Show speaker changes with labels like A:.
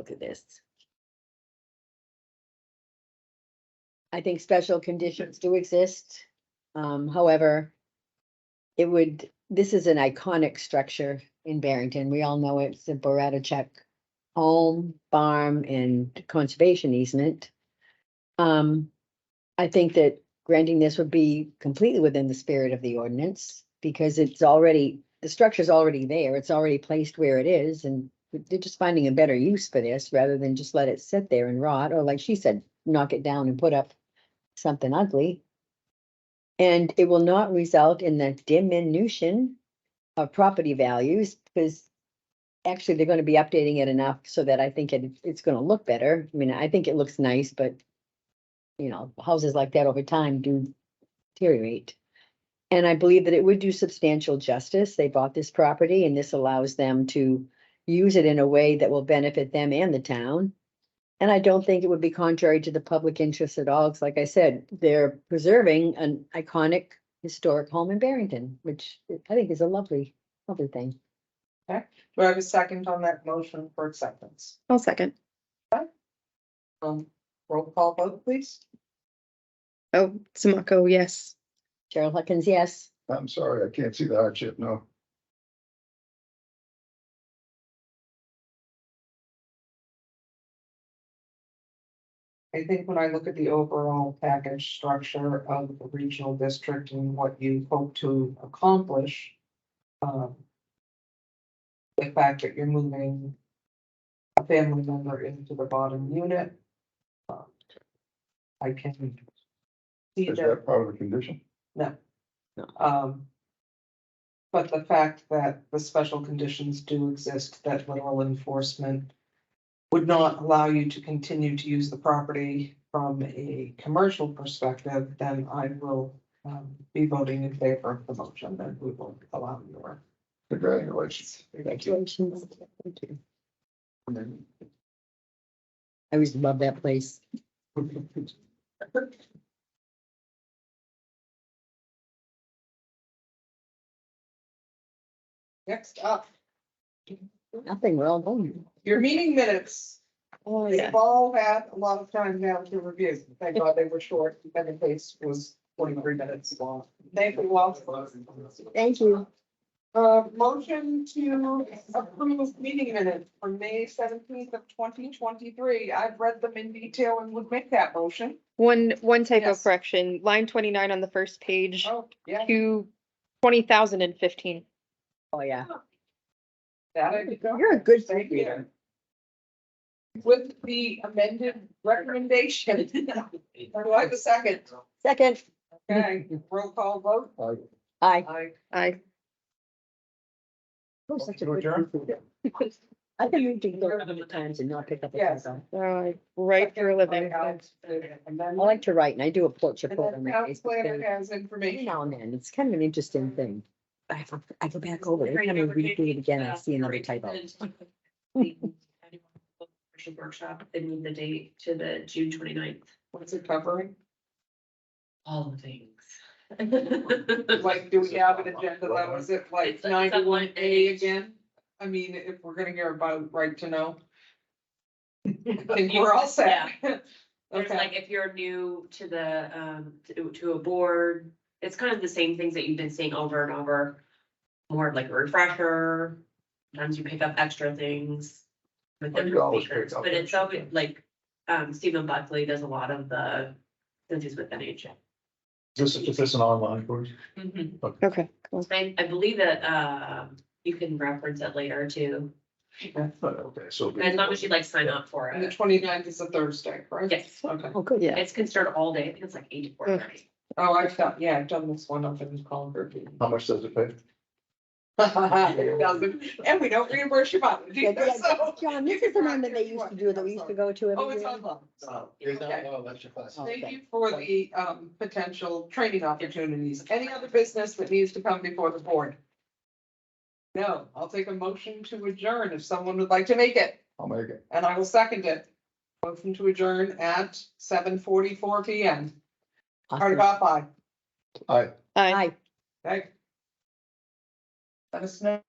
A: Look at this. I think special conditions do exist. Um, however, it would, this is an iconic structure in Barrington. We all know it's the Boratacek home, farm, and conservation easement. Um, I think that granting this would be completely within the spirit of the ordinance because it's already, the structure's already there. It's already placed where it is and they're just finding a better use for this rather than just let it sit there and rot, or like she said, knock it down and put up something ugly. And it will not result in the diminution of property values because actually they're gonna be updating it enough so that I think it, it's gonna look better. I mean, I think it looks nice, but you know, houses like that over time do deteriorate. And I believe that it would do substantial justice. They bought this property and this allows them to use it in a way that will benefit them and the town. And I don't think it would be contrary to the public interest at all. It's like I said, they're preserving an iconic historic home in Barrington, which I think is a lovely, lovely thing.
B: Do I have a second on that motion for acceptance?
C: I'll second.
B: Um, roll call vote, please.
C: Oh, Samaco, yes.
A: Cheryl Huckins, yes.
D: I'm sorry, I can't see the hardship, no.
B: I think when I look at the overall package structure of the regional district and what you hope to accomplish. um, The fact that you're moving. A family member into the bottom unit. um, I can. See
D: Is
B: that
D: that part of the condition?
B: No.
A: No.
B: Um. But the fact that the special conditions do exist, that literal enforcement. Would not allow you to continue to use the property from a commercial perspective, then I will. Um, be voting in favor of the motion, then we will allow your.
D: Congratulations.
A: Congratulations. Thank you.
D: And then-
A: I always love that place.
B: Next up,
A: Nothing, we're all going.
B: your meeting minutes.
C: Oh,
B: We've all had a lot of time now to review. Thank God they were short. The other case was forty-three minutes long. Thank you all.
A: Thank you.
B: Uh, motion to approve meeting minutes for May seventeenth of twenty twenty-three. I've read them in detail and would make that motion.
C: One, one typo
B: Yes.
C: correction, line twenty-nine on the first page,
B: Oh, yeah,
C: to twenty thousand and fifteen.
A: Oh, yeah.
B: that I did.
A: You're a good
B: Thank
A: reader.
B: you. With the amended recommendation. Do I have a second?
A: Second,
B: Okay, roll call vote.
D: I-
A: I.
B: Aye.
C: I,
A: I think you can go a hundred times and not pick up. a
B: Yes.
A: pencil.
C: oh, I write for a living.
A: I like to write and I do a portrait.
B: And
A: photo
B: then
A: on my
B: town
A: Facebook
B: planner
A: thing
B: has
A: every
B: information.
A: Now and then, it's kind of an interesting thing. I have, I go back over it, every time I read through it again,
E: uh,
A: I see another typo.
E: Commercial Workshop, they moved the date to the June 29th.
B: What's it covering?
E: All the things.
B: Like, do we have an agenda that was at like
E: It's like
B: ninety-one
E: someone
B: A
E: aged.
B: again? I mean, if we're gonna hear about right to know, I think we're all set.
E: There's
B: Okay,
E: like, if you're new to the, um, to, to a board, it's kind of the same things that you've been seeing over and over. More of like a refresher, sometimes you pick up extra things. With
D: Oh, you
E: different
D: always pick
E: speakers,
D: up
E: but it's
D: extra
E: always
D: things.
E: like, um, Stephen Buckley does a lot of the, since he's with NHA.
F: This is, is this an online course?
A: Mm-hmm.
C: Okay, cool.
E: I, I believe that, um, you can reference it later too,
D: Okay, so.
E: as long as you like sign up for
B: and the
E: it.
B: 29th is a Thursday, right?
E: Yes,
B: Okay,
A: Oh, good.
C: Yeah.
E: it's can start all day, I think it's like eight to four thirty.
B: oh, I've done, yeah, I've done this one up in Concord.
D: How much does it pay?
B: It doesn't- And we don't reimburse your mileage
A: Yeah,
B: either,
A: yeah,
B: so.
A: John, this is the one that they used to do, that we used to go to
B: Oh,
A: every
B: it's
A: year.
B: online. so, okay.
D: no lecture class.
B: Thank
A: Okay.
B: you for the um potential training opportunities. Any other business that needs to come before the board? No, I'll take a motion to adjourn if someone would like to make it,
D: I'll make it.
B: and I will second it. Motion to adjourn at seven forty-four P M. Hard
A: Awesome.
B: about five,
C: Uh,
D: All right.
C: I.
A: Hi.
B: okay? Let us know.